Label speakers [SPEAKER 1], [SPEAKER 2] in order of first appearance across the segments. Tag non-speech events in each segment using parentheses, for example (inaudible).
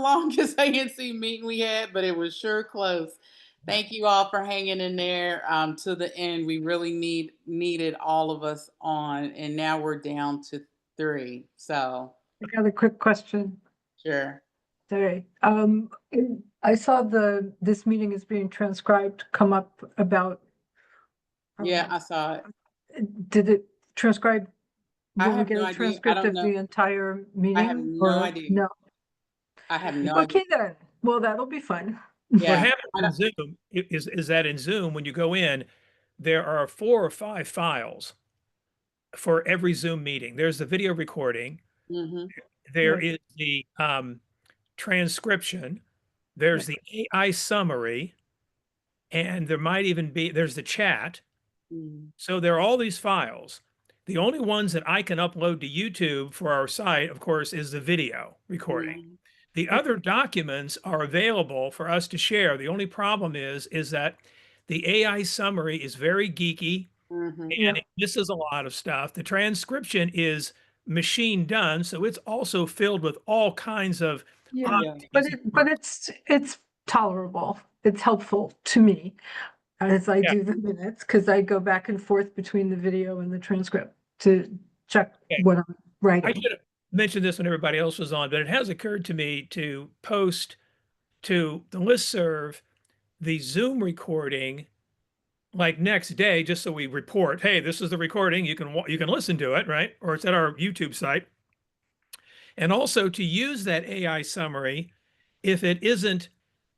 [SPEAKER 1] longest (laughs) ANC meeting we had, but it was sure close. Thank you all for hanging in there um, to the end. We really need needed all of us on, and now we're down to three. So
[SPEAKER 2] I got a quick question.
[SPEAKER 1] sure,
[SPEAKER 2] Sorry. Um, in- I saw the, this meeting is being transcribed come up about. Oh,
[SPEAKER 1] yeah, I saw it.
[SPEAKER 2] Um, Did it transcribe?
[SPEAKER 1] I
[SPEAKER 2] Will we
[SPEAKER 1] have
[SPEAKER 2] get
[SPEAKER 1] no
[SPEAKER 2] a
[SPEAKER 1] idea. I
[SPEAKER 2] transcript
[SPEAKER 1] don't
[SPEAKER 2] of the
[SPEAKER 1] know.
[SPEAKER 2] entire meeting?
[SPEAKER 1] no
[SPEAKER 2] or
[SPEAKER 1] idea.
[SPEAKER 2] No.
[SPEAKER 1] I have no idea.
[SPEAKER 2] Okay then. Well, that'll be fun.
[SPEAKER 3] What
[SPEAKER 1] Yeah,
[SPEAKER 3] happens in Zoom i- is, is that in Zoom, when you go in, there are four or five files for every Zoom meeting. There's the video recording,
[SPEAKER 1] mhm,
[SPEAKER 3] there
[SPEAKER 2] Right.
[SPEAKER 3] is the um, transcription, there's the AI summary, and there might even be, there's the chat.
[SPEAKER 1] mm,
[SPEAKER 3] So there are all these files. The only ones that I can upload to YouTube for our site, of course, is the video recording.
[SPEAKER 1] mhm.
[SPEAKER 3] The other documents are available for us to share. The only problem is, is that the AI summary is very geeky
[SPEAKER 1] Mhm.
[SPEAKER 3] and it misses a lot of stuff. The transcription is machine done, so it's also filled with all kinds of.
[SPEAKER 2] Yeah,
[SPEAKER 1] Ah,
[SPEAKER 3] oddities
[SPEAKER 2] but
[SPEAKER 3] and
[SPEAKER 2] it, but it's, it's tolerable. It's helpful to me as I
[SPEAKER 3] Yeah.
[SPEAKER 2] do the minutes, because I go back and forth between the video and the transcript to check
[SPEAKER 3] Okay.
[SPEAKER 2] what I'm
[SPEAKER 3] I
[SPEAKER 2] writing.
[SPEAKER 3] should have mentioned this when everybody else was on, but it has occurred to me to post to the listserv the Zoom recording like next day, just so we report, hey, this is the recording. You can wa- you can listen to it, right? Or it's at our YouTube site. And also to use that AI summary if it isn't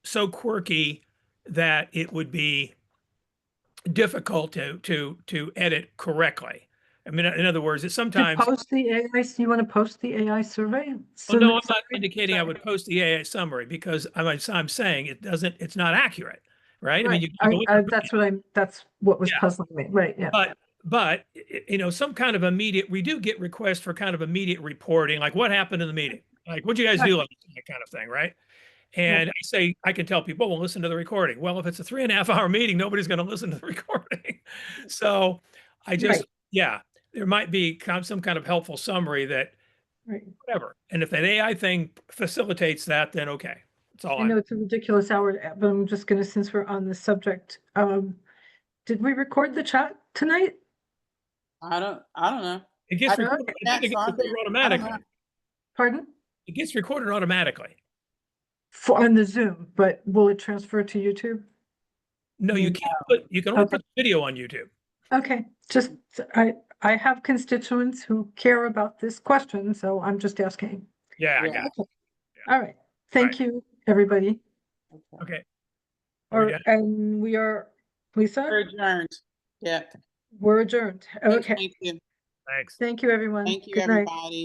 [SPEAKER 3] so quirky that it would be difficult to to to edit correctly. I mean, in other words, it's
[SPEAKER 2] To
[SPEAKER 3] sometimes
[SPEAKER 2] post the AI, you want to post the AI survey?
[SPEAKER 3] well,
[SPEAKER 2] Survey
[SPEAKER 3] Oh, no, I'm not
[SPEAKER 2] summary?
[SPEAKER 3] indicating I
[SPEAKER 2] sorry.
[SPEAKER 3] would post the AI summary because I'm, I'm saying it doesn't, it's not accurate, right? I mean,
[SPEAKER 2] Right.
[SPEAKER 3] you
[SPEAKER 2] I-
[SPEAKER 3] can go in
[SPEAKER 2] I-
[SPEAKER 3] and read it,
[SPEAKER 2] That's what I'm, that's what was
[SPEAKER 3] Yeah.
[SPEAKER 2] puzzling me, right, yeah.
[SPEAKER 3] But, but, y- y- you know, some kind of immediate, we do get requests for kind of immediate reporting, like what happened in the meeting? Like, what'd you guys
[SPEAKER 2] Right.
[SPEAKER 3] do? Like, That kind of thing, right? And I say, I can tell people, well, listen to the recording. Well, if it's a three and a half hour meeting, nobody's gonna listen to the (laughs) recording. So I just,
[SPEAKER 2] Right.
[SPEAKER 3] yeah, there might be com- some kind of helpful summary that
[SPEAKER 2] Right.
[SPEAKER 3] whatever. And if that AI thing facilitates that, then okay. That's all
[SPEAKER 2] I
[SPEAKER 3] I
[SPEAKER 2] know
[SPEAKER 3] know.
[SPEAKER 2] it's a ridiculous hour, but I'm just gonna, since we're on the subject, um, did we record the chat tonight?
[SPEAKER 1] I don't, I don't know.
[SPEAKER 3] It gets
[SPEAKER 1] I know
[SPEAKER 3] recorded,
[SPEAKER 1] that
[SPEAKER 3] I think it gets
[SPEAKER 1] song.
[SPEAKER 3] recorded
[SPEAKER 1] I don't know.
[SPEAKER 3] automatically.
[SPEAKER 2] Pardon?
[SPEAKER 3] It gets recorded automatically.
[SPEAKER 2] For, on the Zoom, but will it transfer to YouTube?
[SPEAKER 3] No, you
[SPEAKER 1] Mm,
[SPEAKER 3] can't put, you can only
[SPEAKER 2] Okay.
[SPEAKER 3] put video on YouTube.
[SPEAKER 2] Okay, just, I, I have constituents who care about this question, so I'm just asking.
[SPEAKER 3] Yeah, I
[SPEAKER 1] Yeah.
[SPEAKER 3] got it.
[SPEAKER 2] All right, thank you, everybody.
[SPEAKER 1] Okay.
[SPEAKER 3] Okay. Are we
[SPEAKER 2] Or,
[SPEAKER 3] done?
[SPEAKER 2] and we are,
[SPEAKER 1] We're
[SPEAKER 2] Lisa,
[SPEAKER 1] adjourned. Yeah.
[SPEAKER 2] we're adjourned, okay.
[SPEAKER 1] Thank you.
[SPEAKER 3] Thanks.
[SPEAKER 2] Thank you, everyone.
[SPEAKER 1] Thank you,
[SPEAKER 2] Good night.
[SPEAKER 1] everybody.